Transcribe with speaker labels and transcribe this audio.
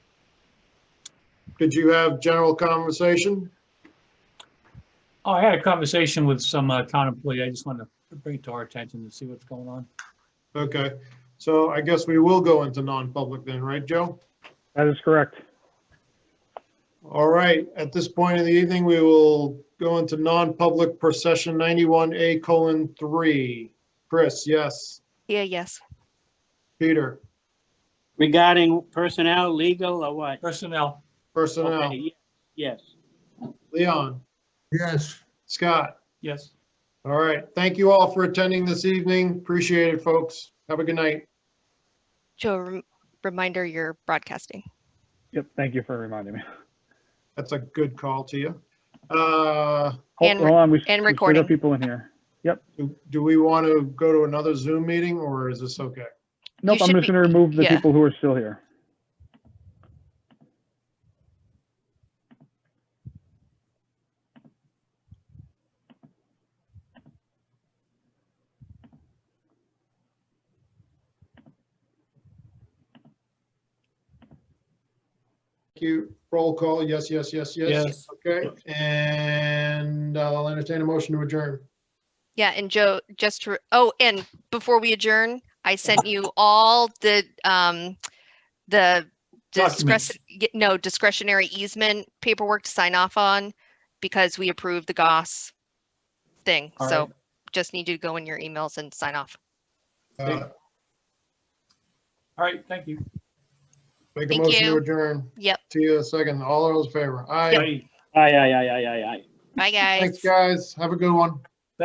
Speaker 1: Did you have general conversation?
Speaker 2: Oh, I had a conversation with some uh, town employee. I just wanted to bring it to our attention to see what's going on.
Speaker 1: Okay, so I guess we will go into non-public then, right, Joe?
Speaker 3: That is correct.
Speaker 1: All right, at this point in the evening, we will go into non-public per session 91A colon 3. Chris, yes.
Speaker 4: Yeah, yes.
Speaker 1: Peter,
Speaker 5: Regarding personnel, legal, or what?
Speaker 2: Personnel,
Speaker 1: personnel.
Speaker 5: Okay, ye- Yes.
Speaker 1: Leon,
Speaker 6: Yes.
Speaker 1: Scott.
Speaker 2: yes.
Speaker 1: All right, thank you all for attending this evening. Appreciate it, folks. Have a good night.
Speaker 4: Joe, rem- reminder you're broadcasting.
Speaker 3: Yep, thank you for reminding me.
Speaker 1: That's a good call to you. Uh,
Speaker 3: Hold
Speaker 4: And
Speaker 3: hold on, we s- we
Speaker 4: and
Speaker 3: still
Speaker 4: recording.
Speaker 3: got people in here.
Speaker 1: do- do we want to go to another Zoom meeting or is this okay?
Speaker 3: Nope, I'm
Speaker 4: should
Speaker 3: just
Speaker 4: be-
Speaker 3: gonna remove the
Speaker 4: yeah.
Speaker 3: people who are still here.
Speaker 1: Thank you. Roll call, yes, yes, yes, yes.
Speaker 2: Yes.
Speaker 1: Okay, and uh, I'll entertain a motion to adjourn.
Speaker 4: Yeah, and Joe, just to, oh, and before we adjourn, I sent you all the, um, the
Speaker 2: Documents.
Speaker 4: discretion, no discretionary easement paperwork to sign off on because we approved the Goss thing.
Speaker 2: All
Speaker 4: So
Speaker 2: right.
Speaker 4: just need you to go in your emails and sign off.
Speaker 1: Uh,
Speaker 2: All right, thank you.
Speaker 1: Make a
Speaker 4: Thank
Speaker 1: motion to
Speaker 4: you.
Speaker 1: adjourn.
Speaker 4: Yep.
Speaker 1: To you, second. All those in favor. Aye.
Speaker 2: Bye.
Speaker 5: Aye, aye, aye, aye, aye, aye.
Speaker 4: Bye, guys.
Speaker 1: Thanks, guys. Have a good one.